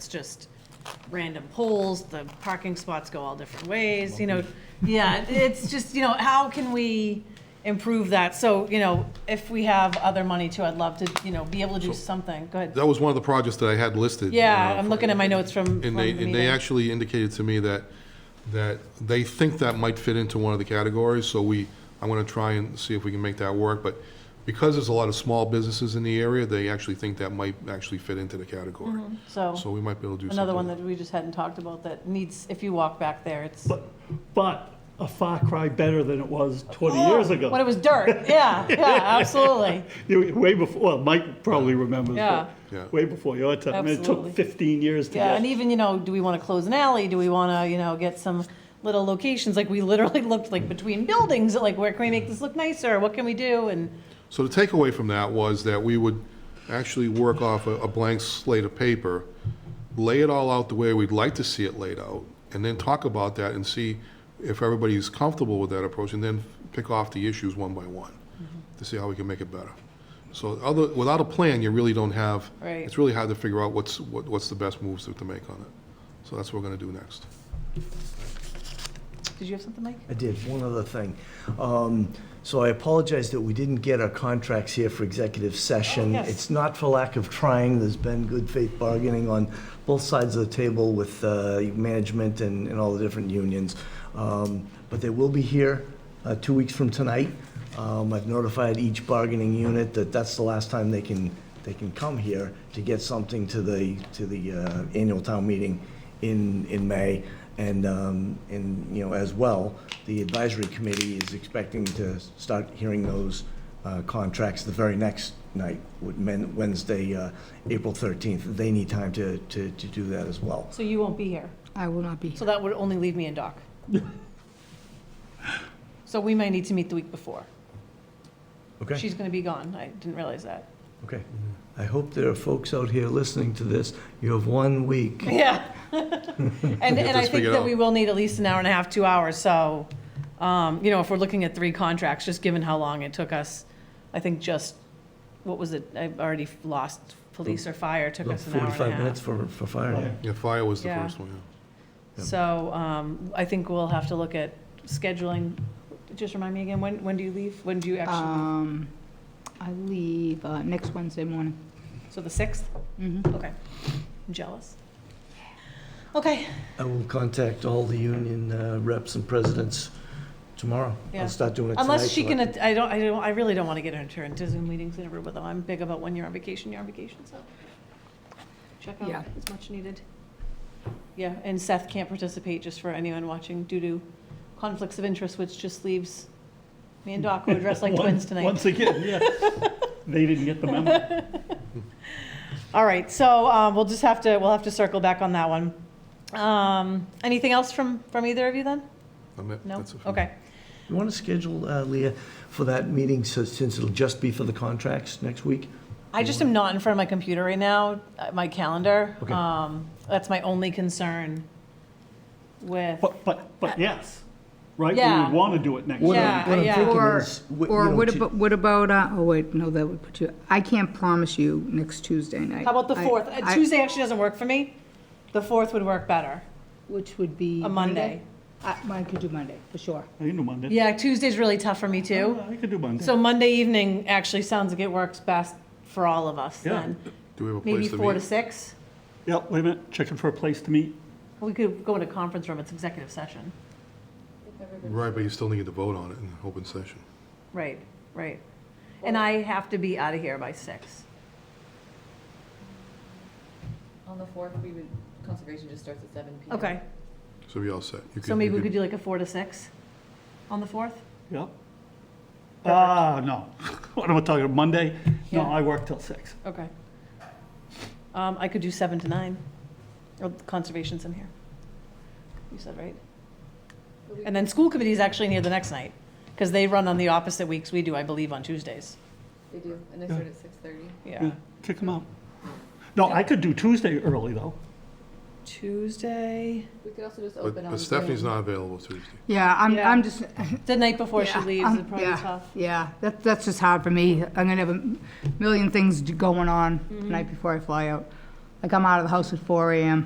just random polls, the parking spots go all different ways, you know. Yeah, it's just, you know, how can we improve that? So, you know, if we have other money too, I'd love to, you know, be able to do something. Go ahead. That was one of the projects that I had listed. Yeah, uh, I'm looking at my notes from, from the And they, and they meeting. actually indicated to me that, that they think that might fit into one of the categories, so we, I'm gonna try and see if we can make that work, but because there's a lot of small businesses in the area, they actually think that might actually fit into the category. So Mm-hmm. So we might be able to do something. another one that we just hadn't talked about that needs, if you walk back there, it's. But, but a far cry better than it was 20 Oh, years ago. When it was dirt, yeah, yeah, absolutely. You- Way before, well, Mike probably remembers, Yeah. Yeah. but way before your time. I mean, It Absolutely. took 15 years to Yeah, and get, even, you know, do we want to close an alley? Do we want to, you know, get some little locations? Like, we literally looked like between buildings, like, where can we make this look nicer? What can we do? And, So the takeaway from that was that we would actually work off a, a blank slate of paper, lay it all out the way we'd like to see it laid out, and then talk about that and see if everybody's comfortable with that approach, and then pick off the issues one by one Mm-hmm. to see how we can make it better. So other, without a plan, you really don't have, Right. it's really hard to figure out what's, what, what's the best moves to, to make on it. So that's what we're gonna do next. did you have something, Mike? I did, one other thing. Um, So I apologize that we didn't get our contracts here for executive session. Oh, yes. It's not for lack of trying, there's been good faith bargaining on both sides of the table with uh, management and and all the different unions. Um, But they will be here uh, two weeks from tonight. Um, I've notified each bargaining unit that that's the last time they can, they can come here to get something to the, to the uh, annual town meeting in, in May. And, um, and, you know, as well, the advisory committee is expecting to start hearing those uh, contracts the very next night, would men- Wednesday, uh, April 13th. They need time to, to, to do that as well. So you won't be here. I will not be So here. that would only leave me and Doc. So we might need to meet the week before. Okay? She's going to be gone. I didn't realize that. Okay. I hope there are folks out here listening to this. You have one week. Yeah. And, and I this think figured that out. we will need at least an hour and a half, two hours, so, um, you know, if we're looking at three contracts, just given how long it took us, I think just, what was it, I've already lost, police or fire took us an hour and a 45 minutes half. for, for fire. Yeah, fire was the Yeah. first one, yeah. So, um, I think we'll have to look at scheduling, just remind me again, when, when do you leave? When do you actually, Um, I leave uh, next Wednesday morning. so the 6th? Mhm. Okay. I'm jealous. Okay, I will contact all the union uh, reps and presidents tomorrow. Yeah. I'll start doing it tonight. unless she so I can, att- I don't, I don't, I really don't want to get her into Zoom meetings and everything, though. I'm big about when you're on vacation, you're on vacation, so. Check out Yeah. as much needed. Yeah, and Seth can't participate, just for anyone watching, due to conflicts of interest, which just leaves me and Doc, who are dressed like One- twins tonight. Once again, yeah. They didn't get the memo. All right, so um, we'll just have to, we'll have to circle back on that one. Um, Anything else from, from either of you then? I'm it. No? That's it for me. Okay. You want to schedule, uh, Leah, for that meeting, so- since it'll just be for the contracts next week? I just am not in front of my computer right now, uh, my calendar. Okay. Um, That's my only concern with, But, but, but yes, right? We Yeah. would want to do it next What year. Yeah. I'm- what I'm thinking Or, is, wh- you or know, what to- about, what about, uh, oh wait, no, that would put you, I can't promise you next Tuesday night. how about the I- 4th? Uh, I- Tuesday actually doesn't work for me. The 4th would work better, Which would be. a Monday. I- Mine could do Monday, for sure. I can do Monday. Yeah, Tuesday's really tough for me too. I could do Monday. So Monday evening actually sounds like it works best for all of us Yeah. then. Do we have a Maybe place to meet? 4 to 6? Yep, wait a minute, checking for a place to meet. We could go in a conference room, it's executive session. Right, but you still need to vote on it in open session. Right, right. And I have to be out of here by 6. On the fourth, we would, conservation just starts at seven PM. Okay, So we all set. You so could- maybe you we could do like a 4 to 6 on the 4th? Yep. Ah, no. What am I talking, about? Monday? No, Yeah. I work till six. Okay. Um, I could do seven to nine. Oh, Conservation's in here. You said, right? And then school committee is actually in here the next night, because they run on the opposite weeks we do, I believe, on Tuesdays. They do, and they start at six thirty. Hmm. Yeah. Kick them out. No, I could do Tuesday early, though. Tuesday, We could also just But open on. but Stephanie's Zoom. not available Tuesday. Yeah, I'm, Yeah. I'm just. the night before she Yeah, leaves is um, probably yeah, tough. Yeah, that, that's just hard for me. I'm gonna have a Mm-hmm. million things going on the night before I fly out. Like, I'm out of the house at four AM.